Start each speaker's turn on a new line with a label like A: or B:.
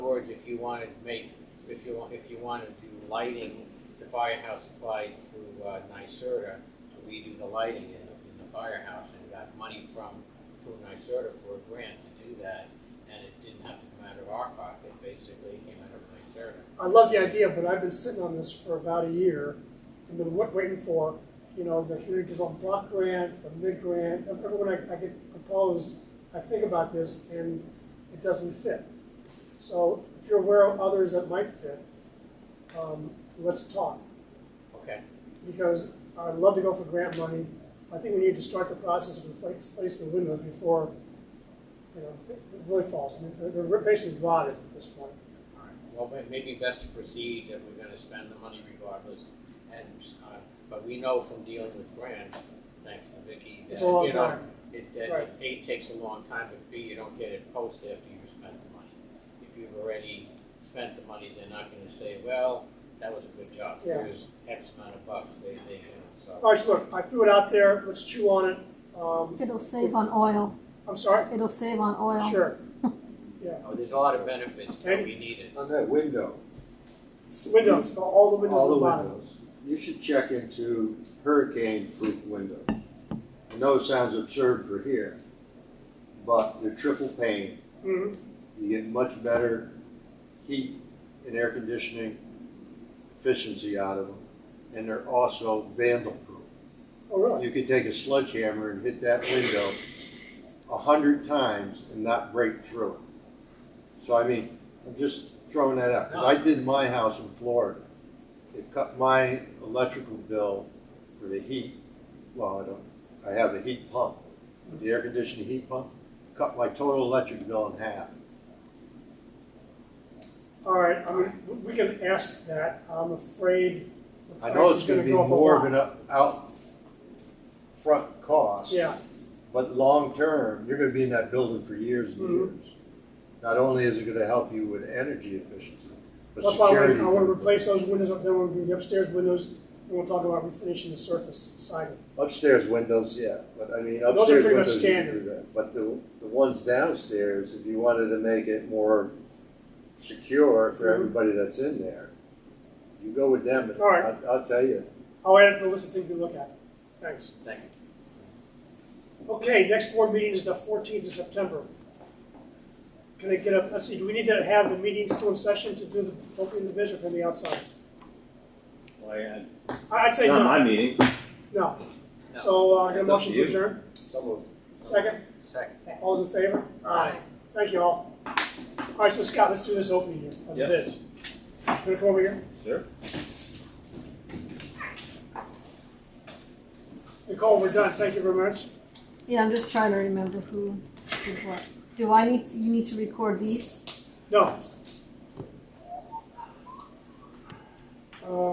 A: words, if you wanted to make, if you, want- if you wanted to do lighting, the firehouse applied through uh, NYSERDA to redo the lighting in the, in the firehouse and got money from, through NYSERDA for a grant to do that. And it didn't have to come out of our pocket, basically, it came out of NYSERDA.
B: I love the idea, but I've been sitting on this for about a year and been wa- waiting for, you know, the community development block grant, the mid grant, everyone I, I get proposed, I think about this and it doesn't fit. So if you're aware of others that might fit, um, let's talk,
A: Okay,
B: because I'd love to go for grant money. I think we need to start the process of replac- replacing the windows before, you know, it it really falls. I mean, they're- they're basically rotted at this point.
A: all right. Well, but maybe best to proceed that we're gonna spend the money regardless. And, uh, but we know from dealing with grants, thanks to Vicky, that,
B: It's a long
A: you know,
B: time.
A: It, that,
B: Right.
A: A, takes a long time, but B, you don't get it posted after you've spent the money. If you've already spent the money, they're not gonna say, well, that was a good job,
B: Yeah.
A: here's X amount of bucks, they, they, you know, so.
B: All right, so look, I threw it out there, let's chew on it. Um,
C: It'll save on oil.
B: I'm sorry?
C: It'll save on oil.
B: Sure.
A: Oh, there's a lot of benefits that we needed.
D: On that window,
B: Windows, all the windows
D: all
B: on
D: the
B: the bottom.
D: windows, you should check into hurricane-proof windows. I know it sounds absurd for here, but they're triple pane,
B: Mhm.
D: you get much better heat and air conditioning efficiency out of them, and they're also vandal-proof.
B: Oh, really?
D: You could take a sledgehammer and hit that window a hundred times and not break through it. So I mean, I'm just throwing that out, 'cause I did my house in Florida. It cut my electrical bill for the heat, well, I don't, I have a heat pump, the air conditioning heat pump, cut my total electric bill in half.
B: All right, I mean, we can ask that. I'm afraid the
D: I
B: price
D: know it's
B: is
D: gonna
B: gonna
D: be
B: go up a
D: more of
B: lot.
D: an uh, up- out front cost.
B: Yeah,
D: But long term, you're gonna be in that building for years and
B: Mhm.
D: years. Not only is it gonna help you with energy efficiency, but
B: that's why I
D: security.
B: wanna, I wanna replace those windows up there, I wanna do the upstairs windows, and we'll talk about refinishing the surface siding.
D: Upstairs windows, yeah, but I mean,
B: are
D: upstairs
B: pretty much
D: windows, you can do that. But the, the ones downstairs, if you wanted to make it more secure for
B: Mhm.
D: everybody that's in there, you go with them, and
B: All right.
D: I'll, I'll tell you,
B: I'll add it to the list of things we look at. Thanks.
A: Thank you.
B: Okay, next board meeting is the fourteenth of September. Can I get a, let's see, do we need to have the meeting still in session to do the opening of the bids or can it be outside?
E: Well, yeah,
B: I- I'd say
E: it's not
B: no,
E: my meeting.
B: no.
A: No.
B: So, uh, get a
E: It's up
B: motion
E: to
B: to
E: you.
B: adjourn,
E: So moved.
B: second,
A: Second.
B: all's in favor? Aye. Thank you all. All right, so Scott, let's do this opening here, of the
E: Yep.
B: bids. Gonna come over here,
E: Sure.
B: Nicole, we're done, thank you very much.
C: Yeah, I'm just trying to remember who did what. Do I need, to- you need to record these?
B: No. Uh,